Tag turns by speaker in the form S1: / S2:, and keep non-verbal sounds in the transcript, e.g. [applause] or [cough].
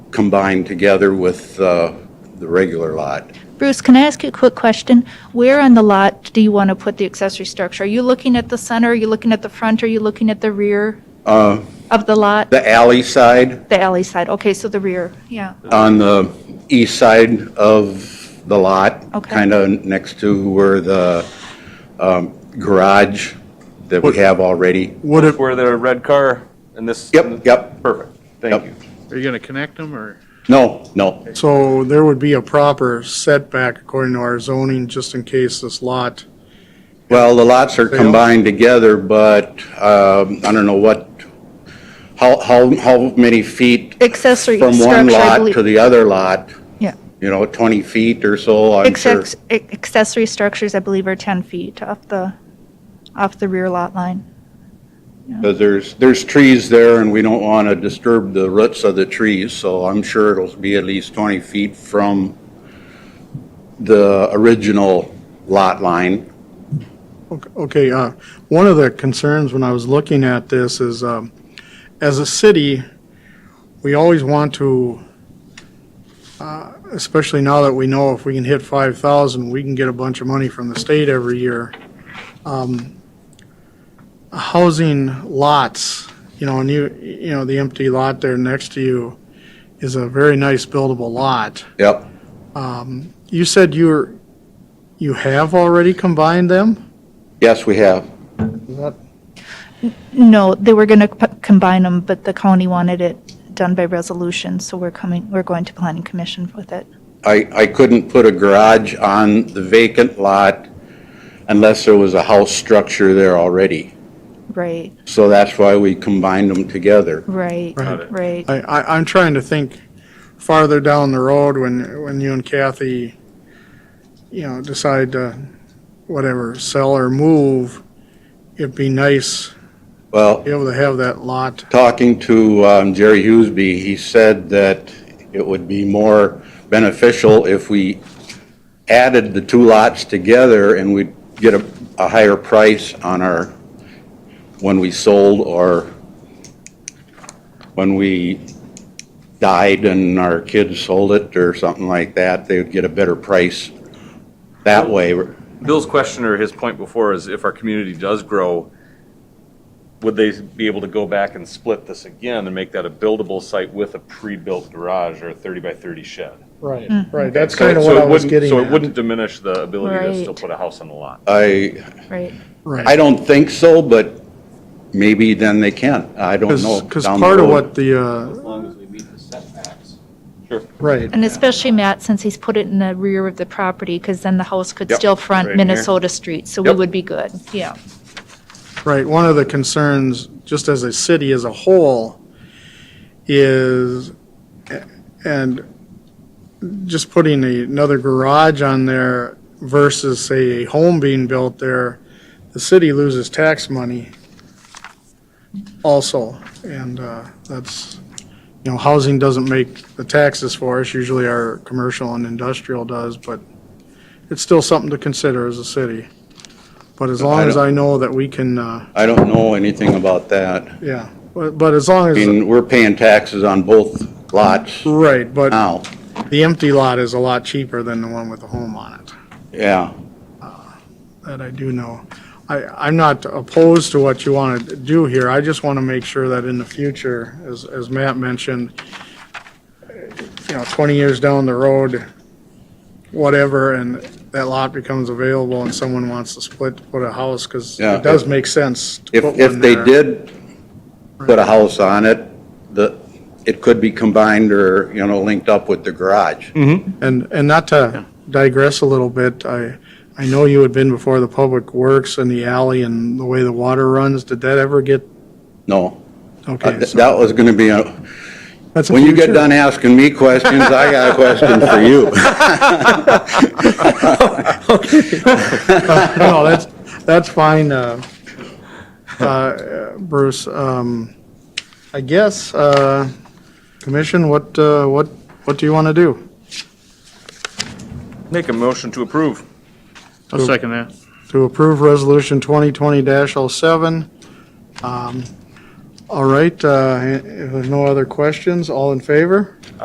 S1: combined together with uh, the regular lot.
S2: Bruce, can I ask you a quick question? Where on the lot do you want to put the accessory structure? Are you looking at the center, are you looking at the front, are you looking at the rear
S1: Uh,
S2: of the lot?
S1: The alley side,
S2: The alley side, okay, so the rear, yeah.
S1: on the east side of the lot.
S2: Okay.
S1: Kind of next to where the um, garage that we have already.
S3: What if,
S4: Where the red car and this?
S1: Yep, yep.
S4: Perfect,
S1: Yep.
S4: thank you.
S5: Are you going to connect them or?
S1: No, no,
S3: so there would be a proper setback according to our zoning, just in case this lot,
S1: Well, the lots are
S3: They
S1: combined together, but um, I don't know what, how, how, how many feet
S2: Accessory
S1: from one
S2: structure, I
S1: lot
S2: believe.
S1: to the other lot,
S2: Yeah.
S1: you know, 20 feet or so, I'm sure.
S2: Accex- ac- Accessory structures, I believe, are 10 feet off the, off the rear lot line.
S1: Because there's, there's trees there and we don't want to disturb the roots of the trees, so I'm sure it'll be at least 20 feet from the original lot line.
S3: okay, uh, one of the concerns when I was looking at this is, um, as a city, we always want to, uh, especially now that we know if we can hit five thousand, we can get a bunch of money from the state every year. Um, Housing lots, you know, and you, you know, the empty lot there next to you is a very nice buildable lot.
S1: Yep,
S3: You said you're, you have already combined them?
S1: yes, we have.
S3: Is that-
S2: No, they were going to combine them, but the county wanted it done by resolution, so we're coming, we're going to planning commission with it.
S1: I, I couldn't put a garage on the vacant lot unless there was a house structure there already.
S2: Right,
S1: So that's why we combined them together.
S2: right,
S3: Right.
S2: right.
S3: I, I, I'm trying to think farther down the road when, when you and Kathy, you know, decide to, whatever, sell or move, it'd be nice to
S1: Well,
S3: be able to have that lot.
S1: talking to um, Jerry Hughesby, he said that it would be more beneficial if we added the two lots together and we'd get a, a higher price on our, when we sold or when we died and our kids sold it or something like that, they would get a better price that way.
S4: Bill's question or his point before is if our community does grow, would they be able to go back and split this again and make that a buildable site with a pre-built garage or a 30 by 30 shed?
S3: Right, right, that's
S4: So-
S3: kind of
S4: so
S3: what
S4: it
S3: I was
S4: wouldn't-
S3: getting
S4: So it
S3: at.
S4: wouldn't diminish the ability to still
S2: Right.
S4: put a house on the lot?
S1: I,
S2: Right.
S1: I
S3: Right,
S1: don't think so, but maybe then they can. I don't know.
S3: because
S1: down the
S3: part of
S1: road.
S3: what the, uh,
S6: long as we meet the setbacks.
S3: right,
S2: And especially Matt, since he's put it in the rear of the property, because then the house could
S1: Yep,
S2: still front
S4: right here.
S2: Minnesota Street, so we
S1: Yep.
S2: would be good, yeah.
S3: right, one of the concerns, just as a city as a whole, is, and just putting a- another garage on there versus, say, a home being built there, the city loses tax money also. And uh, that's, you know, housing doesn't make the taxes for us, usually our commercial and industrial does, but it's still something to consider as a city. But as long as I know that we can, uh,
S1: I don't know anything about that.
S3: yeah, but but as long
S1: I
S3: as,
S1: mean, we're paying taxes on both lots
S3: right, but.
S1: now.
S3: The empty lot is a lot cheaper than the one with the home on it,
S1: Yeah,
S3: that I do know. I, I'm not opposed to what you want to do here, I just want to make sure that in the future, as, as Matt mentioned, you know, 20 years down the road, whatever, and that lot becomes available and someone wants to split, to put a house, because
S1: Yeah.
S3: it does make sense to
S1: if,
S3: put
S1: if
S3: one
S1: they
S3: there.
S1: did put a house on it, the, it could be combined or, you know, linked up with the garage.
S3: And, and not to digress a little bit, I, I know you had been before the Public Works and the alley and the way the water runs. Did that ever get,
S1: No, Uh,
S3: okay,
S1: th-
S3: so
S1: that was gonna be, a-
S3: that's a
S1: when you get
S3: future.
S1: done asking me questions, I got a question for you.
S3: [laughs] No, that's, that's fine, uh, uh, Bruce. Um, I guess, uh, Commission, what, uh, what, what do you want to do?
S4: Make a motion to approve.
S5: I'll second that.
S3: to approve Resolution 2020-07. Um, All right, uh, if there's no other questions, all in favor?